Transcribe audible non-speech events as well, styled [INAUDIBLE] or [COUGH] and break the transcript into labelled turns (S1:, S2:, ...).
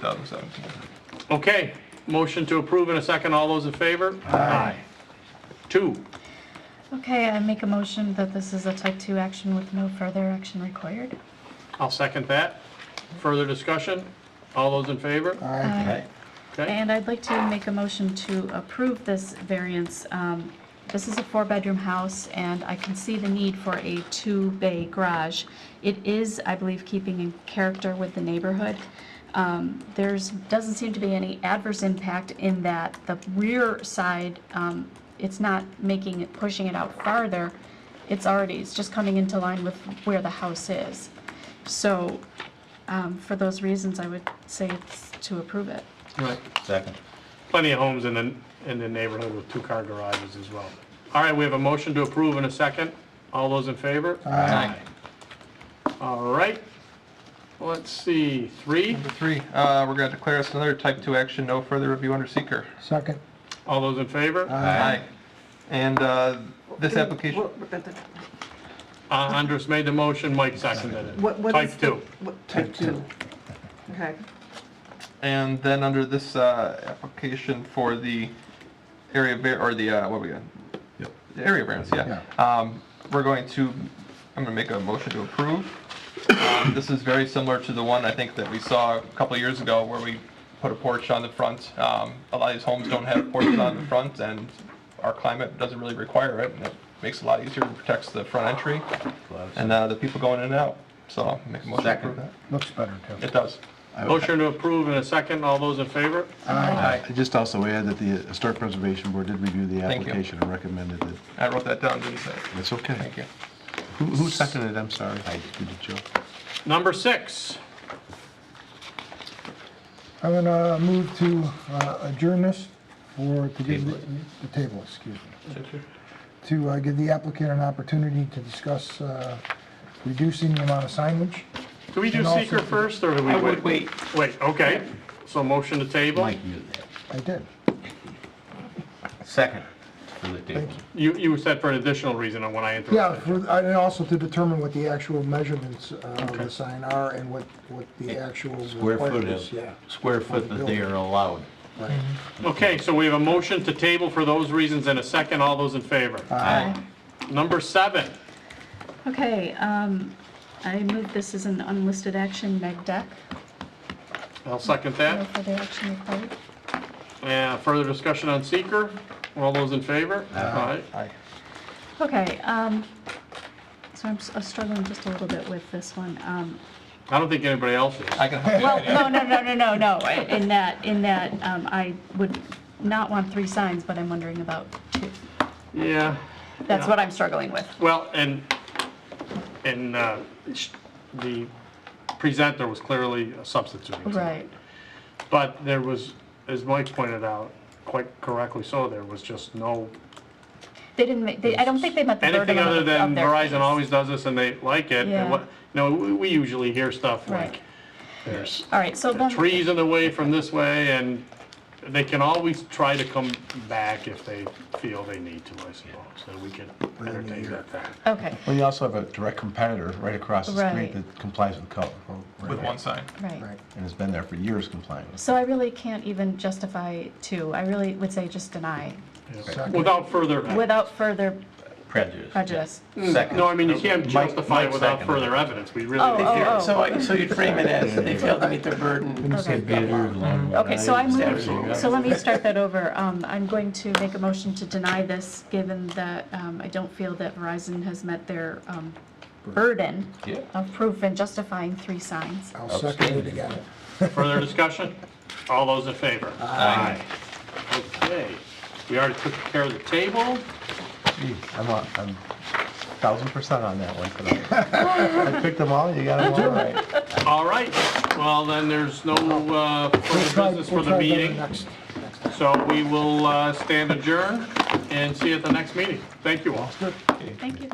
S1: 2017.
S2: Okay, motion to approve in a second. All those in favor? Aye. Two,
S3: Okay, I make a motion that this is a type-two action with no further action required.
S2: I'll second that. Further discussion? All those in favor?
S3: Aye.
S2: Okay,
S3: And I'd like to make a motion to approve this variance. Um, This is a four-bedroom house, and I can see the need for a two-bay garage. It is, I believe, keeping in character with the neighborhood. Um, There's, doesn't seem to be any adverse impact in that the rear side, um, it's not making it, pushing it out farther. It's already, it's just coming into line with where the house is. So um, for those reasons, I would say it's to approve it.
S2: right.
S4: Second.
S2: Plenty of homes in the, in the neighborhood with two-car garages as well. All right, we have a motion to approve in a second. All those in favor?
S4: Aye.
S2: All right. Let's see, three.
S1: Number three, uh, we're going to declare this another type 2 action, no further review under seeker.
S5: Second.
S2: All those in favor?
S1: Aye. And uh, this application,
S6: What,
S2: Uh, Andres made the motion, Mike seconded it.
S6: what is
S2: Type
S6: the-
S2: two.
S6: what- Type two. Okay,
S1: and then under this uh, application for the area, var- or the, uh, what we got?
S4: Yep.
S1: The area variance, yeah. Um, We're going to, I'm going to make a motion to approve. Um, This is very similar to the one, I think, that we saw a couple of years ago where we put a porch on the front. Um, A lot of these homes don't have porches on the front, and our climate doesn't really require it, and it makes it a lot easier and protects the front entry and uh, the people going in and out. So I'll make a motion to approve that.
S4: Second.
S5: Looks better, too.
S1: It does.
S2: Motion to approve in a second. All those in favor?
S4: Aye.
S7: I Just also add that the Historic Preservation Board did review the
S1: Thank you.
S7: application and recommended that,
S1: I wrote that down, didn't say it.
S7: it's okay.
S1: Thank you.
S7: Who who seconded it? I'm sorry. I did. it, Joe?
S2: Number six.
S5: I'm going to move to uh, adjourn this for, to give the the table, excuse me, to uh, give the applicant an opportunity to discuss uh, reducing the amount of signage.
S2: Do we do
S5: And also-
S2: seeker first, or do we wait?
S4: I would wait.
S2: Wait, okay. So motion to table?
S4: Mike knew that.
S5: I did.
S4: Second for the table.
S2: You, you said for an additional reason on when I
S5: Yeah,
S2: interrupted.
S5: for- and also to determine what the actual measurements uh, of the sign are and what, what the actual.
S4: Square foot
S5: requirements-
S4: of,
S5: Yeah.
S4: square foot that they are allowed.
S5: right.
S2: Okay, so we have a motion to table for those reasons and a second. All those in favor?
S4: Aye.
S2: Number seven.
S3: Okay, um, I move this as an unlisted action, neg deck,
S2: I'll second
S3: no
S2: that.
S3: further action required.
S2: Uh, Further discussion on seeker? All those in favor? Aye.
S1: Aye.
S3: Okay, um, so I'm s- I'm struggling just a little bit with this one. Um,
S2: I don't think anybody else is.
S1: I can help you.
S3: Well, no, no, no, no, no, no, in that, in that, um, I would not want three signs, but I'm wondering about two.
S2: Yeah,
S3: That's what I'm struggling with.
S2: well, and, and uh, sh- the presenter was clearly substituting. something.
S3: Right,
S2: But there was, as Mike pointed out, quite correctly so, there was just no,
S3: they didn't make, they, I don't think they met the burden
S2: anything other
S3: of their.
S2: than Verizon always does this and they like it.
S3: Yeah.
S2: And what, you know, we we usually hear stuff
S3: Right,
S2: like, there's
S3: all right, so then.
S2: trees in the way from this way and they can always try to come back if they feel they need to, I suppose. So we can entertain that then.
S3: Okay,
S7: Well, you also have a direct competitor right across the
S3: Right.
S7: street that complies with code.
S1: With one sign.
S3: right.
S7: And has been there for years complying.
S3: So I really can't even justify two. I really would say just deny
S2: Without further.
S3: without further
S4: Prejudice.
S3: prejudice.
S4: Second.
S2: No, I mean, you can't
S4: Mike-
S2: justify it
S4: Mike
S2: without
S4: seconded.
S2: further evidence. We really.
S3: Oh,
S2: need to-
S3: oh,
S8: So, I- so you'd frame it as they failed to meet their burden.
S3: Okay, Okay, so I move, so let me start that over. Um, I'm going to make a motion to deny this, given that um, I don't feel that Verizon has met their um, burden
S4: Yeah.
S3: of proof in justifying three signs.
S5: I'll second it again.
S2: Further discussion? All those in favor?
S4: Aye.
S2: Okay, we already took care of the table.
S7: I'm on, I'm thousand percent on that one
S3: [LAUGHS]
S7: tonight. I picked them all, you got them all right.
S2: All right, well, then there's no uh, further
S5: Try-
S2: business for
S5: we'll
S2: the
S5: try
S2: meeting,
S5: next-
S2: so we will uh, stand adjourned and see you at the next meeting. Thank you all.
S3: Thank you.